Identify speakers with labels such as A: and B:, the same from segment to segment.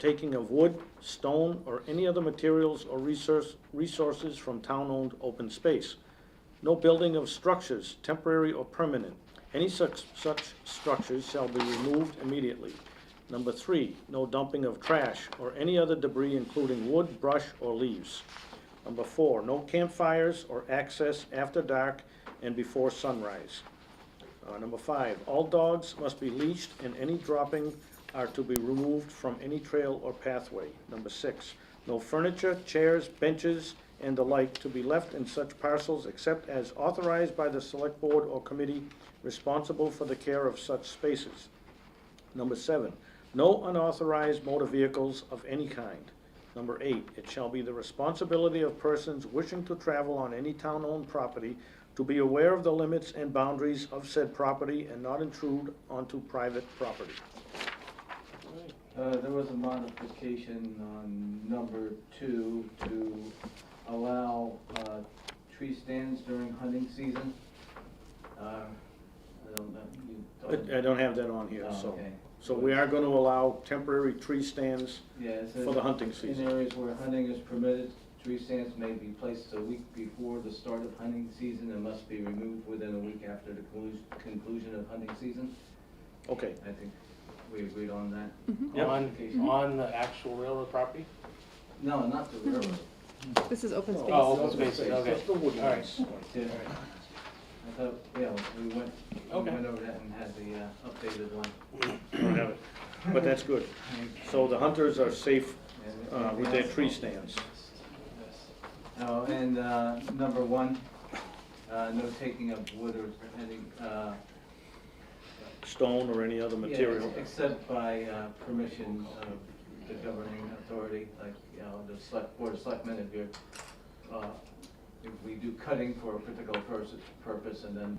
A: taking of wood, stone, or any other materials or resource, resources from town-owned open space. No building of structures, temporary or permanent. Any such, such structures shall be removed immediately. Number three, no dumping of trash or any other debris including wood, brush, or leaves. Number four, no campfires or access after dark and before sunrise. Uh, number five, all dogs must be leashed and any dropping are to be removed from any trail or pathway. Number six, no furniture, chairs, benches, and the like to be left in such parcels except as authorized by the select board or committee responsible for the care of such spaces. Number seven, no unauthorized motor vehicles of any kind. Number eight, it shall be the responsibility of persons wishing to travel on any town-owned property to be aware of the limits and boundaries of said property and not intrude onto private property.
B: Uh, there was a modification on number two to allow, uh, tree stands during hunting season. Uh, I don't know, you don't.
A: I I don't have that on here,
B: Oh,
A: so.
B: okay.
A: So we are gonna allow temporary tree stands
B: Yeah, it says
A: for the hunting
B: in
A: season.
B: areas where hunting is permitted, tree stands may be placed a week before the start of hunting season and must be removed within a week after the conclu- conclusion of hunting season.
A: Okay,
B: I think we agreed on that.
A: Yep.
C: On,
B: Modification.
C: on the actual railroad property?
B: No, not the railroad.
D: This is open space.
C: Oh, open spaces, okay.
A: Just the wood
C: All right.
A: ones.
B: Yeah, I thought, yeah, we went, we
C: Okay.
B: went over that and had the uh, updated one.
A: I don't have it, but that's good. So the hunters are safe
B: And-
A: uh, with their tree stands.
B: Oh, and uh, number one, uh, no taking of wood or any, uh,
A: stone or any other material.
B: yeah, Except by uh, permission of the governing authority, like, you know, the select, board of selectmen, if you're, uh, if we do cutting for a particular pers- purpose, and then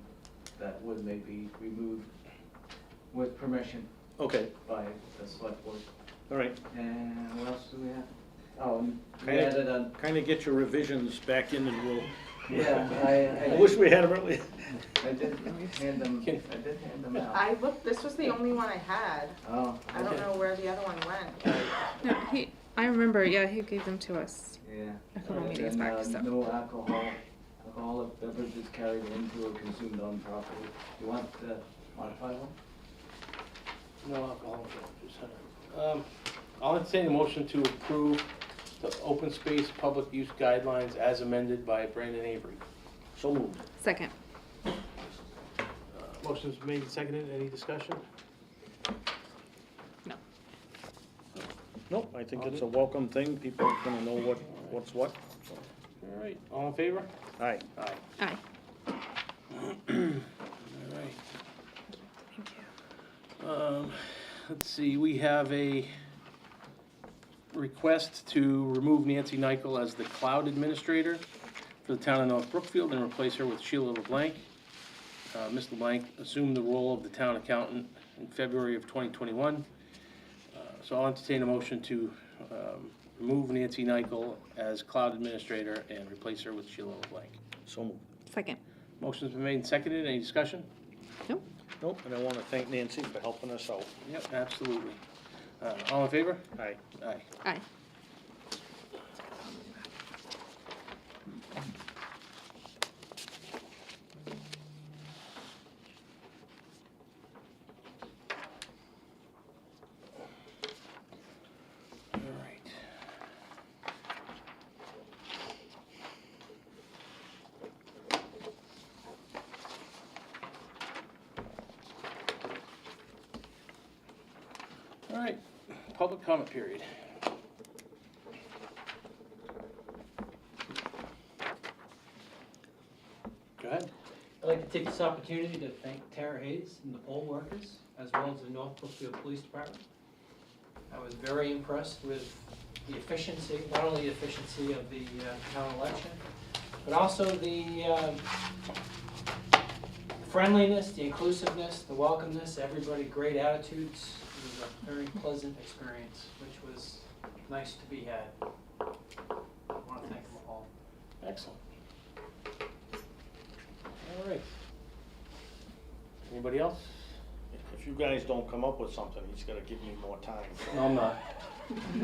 B: that wood may be removed with permission
A: Okay,
B: by the select board.
A: all right.
B: And what else do we have? Oh, we
A: Okay.
B: added on,
A: Kind of get your revisions back in and we'll,
B: yeah, I,
A: I
B: I.
A: wish we had them earlier.
B: I did hand them, I did hand them out.
E: I looked, this was the only one I had.
B: Oh,
E: I don't know where the other one went.
D: No, he, I remember, yeah, he gave them to us.
B: yeah.
D: A couple
B: And
D: meetings
B: then,
D: back,
B: uh,
D: so.
B: No alcohol, alcoholic beverages carried into or consumed on property. You want to modify one?
C: No alcohol. just had it. Um, I'll entertain a motion to approve the open space public use guidelines as amended by Brandon Avery.
A: So moved.
D: Second.
C: Uh, Motion's made, and seconded, any discussion?
A: Nope, I think it's a welcome thing. People are gonna know what, what's what.
C: All right, all in favor?
A: All right,
C: Aye.
D: Aye.
C: All right.
D: Thank you.
C: Um, Let's see, we have a request to remove Nancy Nykel as the cloud administrator for the town of North Brookfield and replace her with Sheila LeBlanc. Uh, Ms. LeBlanc assumed the role of the town accountant in February of 2021. Uh, So I'll entertain a motion to um, remove Nancy Nykel as cloud administrator and replace her with Sheila LeBlanc.
A: so moved.
D: Second.
C: Motion's been made and seconded, any discussion?
D: Nope.
A: Nope, and I wanna thank Nancy for helping us out.
C: Yep, absolutely. Uh, All in favor?
A: All right,
C: Aye.
D: Aye.
C: All right. All right, public comment period. Go ahead.
F: I'd like to take this opportunity to thank Tara Hayes and the poll workers, as well as the North Brookfield Police Department. I was very impressed with the efficiency, not only the efficiency of the uh, town election, but also the um, friendliness, the inclusiveness, the welcomeness, everybody, great attitudes. It was a very pleasant experience, which was nice to be had. I want to thank them all.
C: Excellent. All right. Anybody else?
A: if you guys don't come up with something, he's gonna give me more time.
C: No, I'm not.